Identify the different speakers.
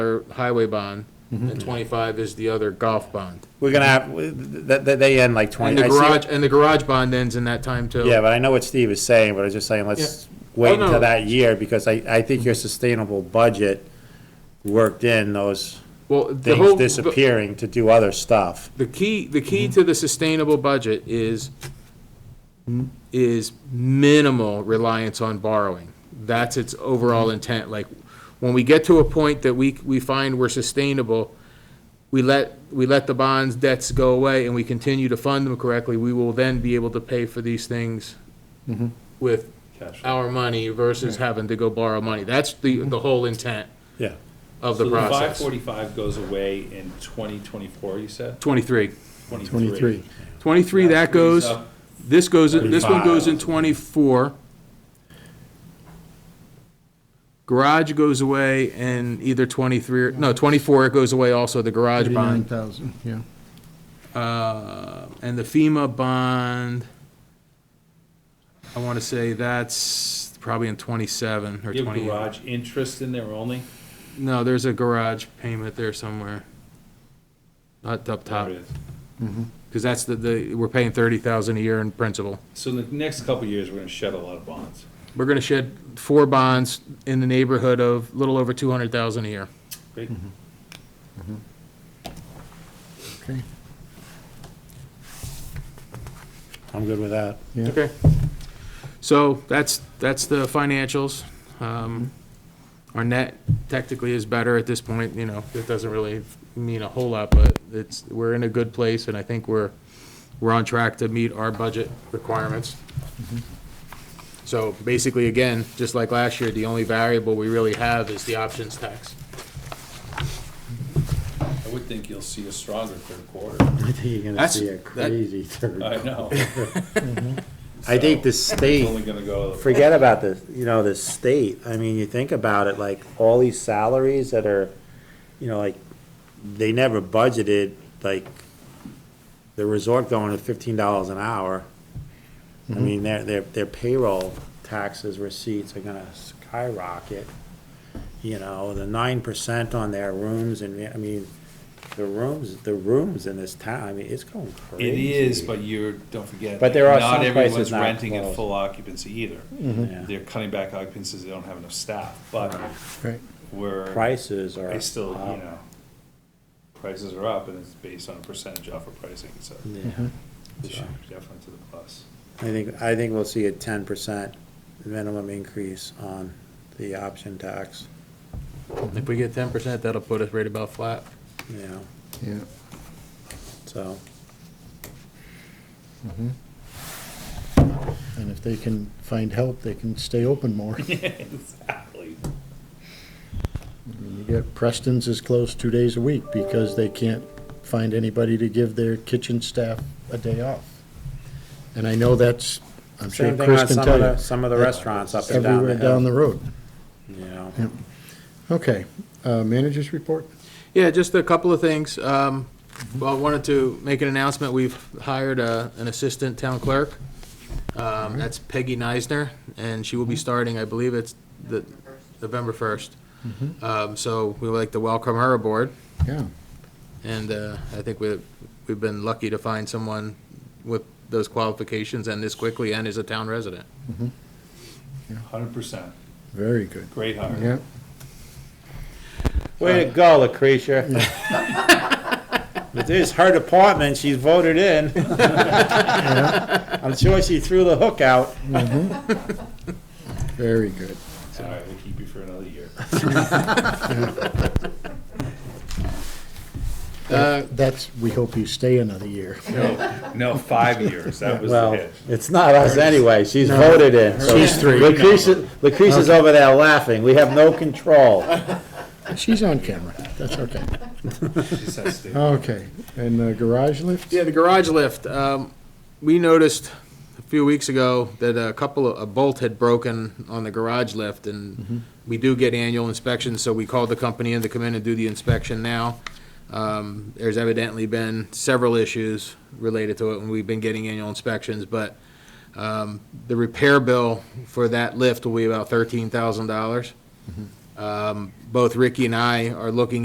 Speaker 1: dollar highway bond,
Speaker 2: Mm-hmm.
Speaker 1: and twenty-five is the other golf bond.
Speaker 2: We're gonna have, that, that, they end like
Speaker 1: And
Speaker 2: twenty.
Speaker 1: the
Speaker 2: I see what-
Speaker 1: garage, and the garage bond ends in that time too.
Speaker 2: Yeah, but I know what Steve is saying, but I was just saying, let's
Speaker 1: Oh,
Speaker 2: wait
Speaker 1: no.
Speaker 2: until that year, because I, I think your sustainable budget worked in those
Speaker 1: Well, the
Speaker 2: things
Speaker 1: whole,
Speaker 2: disappearing to do other stuff.
Speaker 1: the key, the key
Speaker 2: Mm-hmm.
Speaker 1: to the sustainable budget is, is minimal reliance on borrowing. That's its overall
Speaker 2: Mm-hmm.
Speaker 1: intent, like, when we get to a point that we, we find we're sustainable, we let, we let the bonds debts go away and we continue to fund them correctly, we will then be able to pay for these things
Speaker 2: Mm-hmm.
Speaker 1: with our money versus having to go borrow money. That's the, the whole intent
Speaker 2: Yeah,
Speaker 1: of the
Speaker 3: Five
Speaker 1: process.
Speaker 3: forty-five goes away in twenty twenty-four, you said?
Speaker 1: Twenty-three.
Speaker 3: Twenty-three.
Speaker 1: 23, that goes, this goes, this one goes in 24. Garage goes away in either 23, or no, 24, it goes away also, the garage
Speaker 4: Eighty-nine
Speaker 1: bond.
Speaker 4: thousand, yeah.
Speaker 1: Uh, And the FEMA bond, I want to say that's probably in 27 or
Speaker 3: You have
Speaker 1: 28.
Speaker 3: garage interest in there only?
Speaker 1: No, there's a garage payment there somewhere. Not up top,
Speaker 3: There it is.
Speaker 1: because that's the, the, we're paying 30,000 a year in principal.
Speaker 3: So in the next couple of years, we're gonna shed a lot of bonds.
Speaker 1: We're gonna shed four bonds in the neighborhood of a little over two hundred thousand a year.
Speaker 3: Great.
Speaker 1: Mm-hmm.
Speaker 4: Okay.
Speaker 2: I'm good with that.
Speaker 4: Yeah.
Speaker 1: Okay. So that's, that's the financials. Um, Our net technically is better at this point, you know, it doesn't really mean a whole lot, but it's, we're in a good place and I think we're, we're on track to meet our budget requirements. So basically, again, just like last year, the only variable we really have is the options tax.
Speaker 3: I would think you'll see a stronger third quarter.
Speaker 2: I think you're
Speaker 1: gonna see a That's- that-
Speaker 2: third.
Speaker 3: I know.
Speaker 2: I think the
Speaker 3: It's
Speaker 2: state,
Speaker 3: only gonna go,
Speaker 2: forget about the, you know, the state, I mean, you think about it, like, all these salaries that are, you know, like, they never budgeted, like, the resort going at fifteen dollars an hour. I mean, their, their, their payroll taxes receipts are gonna skyrocket. You know, the nine percent on their rooms and, I mean, the rooms, the rooms in this town, I mean, it's going crazy.
Speaker 3: it is, but you're, don't forget.
Speaker 2: But there are
Speaker 3: Not
Speaker 2: some
Speaker 3: everyone's
Speaker 2: places not Mm-hmm.
Speaker 3: renting at
Speaker 2: closed.
Speaker 3: full occupancy either.
Speaker 2: Yeah.
Speaker 3: They're cutting back occupancies, they don't have enough staff, but
Speaker 4: Right.
Speaker 3: we're.
Speaker 2: Prices are.
Speaker 3: I still,
Speaker 2: up.
Speaker 3: you know, prices are up and it's based on a percentage off of pricing, so
Speaker 4: uh-huh,
Speaker 2: Yeah.
Speaker 3: this year, definitely to the plus.
Speaker 2: I think, I think we'll see a ten percent minimum increase on the option tax,
Speaker 1: If we get ten percent, that'll put us right about flat.
Speaker 2: you know,
Speaker 4: Yeah.
Speaker 2: so.
Speaker 4: uh-huh. And if they can find help, they can stay open more. I
Speaker 3: Exactly.
Speaker 4: mean, You get Preston's is closed two days a week because they can't find anybody to give their kitchen staff a day off. And I know that's, I'm sure
Speaker 2: Same thing
Speaker 4: Chris
Speaker 2: on
Speaker 4: can
Speaker 2: some of the,
Speaker 4: tell you,
Speaker 2: some of the
Speaker 4: That-
Speaker 2: restaurants up and down the
Speaker 4: everywhere down the
Speaker 2: hill,
Speaker 4: road.
Speaker 2: you know.
Speaker 4: Yeah. Okay, uh, managers report?
Speaker 1: Yeah, just a couple of things. Um, Well, I wanted to make an announcement. We've hired a- an assistant town clerk. Um, That's Peggy Neisner, and she will be starting, I believe it's the November 1st. Um, So we would like to welcome her aboard,
Speaker 4: Yeah,
Speaker 1: and uh, I think we- we've been lucky to find someone with those qualifications and this quickly and is a town resident.
Speaker 3: Hundred percent.
Speaker 4: very good.
Speaker 3: Great hire.
Speaker 4: Yeah,
Speaker 2: Way to go, Lucretia. It is her department, she's voted in. I'm sure she threw the hook out.
Speaker 4: very good.
Speaker 3: It's All right, we'll keep you for another year.
Speaker 1: Uh,
Speaker 4: That's, we hope you stay another year.
Speaker 3: No, no, five years, that was the
Speaker 2: Well,
Speaker 3: hit.
Speaker 2: it's not us anyway, she's voted in. so-
Speaker 4: She's three.
Speaker 2: Lucretia, Lucretia's over there laughing, we have no control.
Speaker 4: She's on camera, that's okay.
Speaker 3: She said stay.
Speaker 4: Okay, and the garage lift?
Speaker 1: Yeah, the garage lift, um, we noticed a few weeks ago that a couple of, a bolt had broken on the garage lift, and we do get annual inspections, so we called the company in to come in and do the inspection now. Um, there's evidently been several issues related to it, and we've been getting annual inspections, but, um, the repair bill for that lift will be about thirteen thousand dollars. Um, Both Ricky and I are looking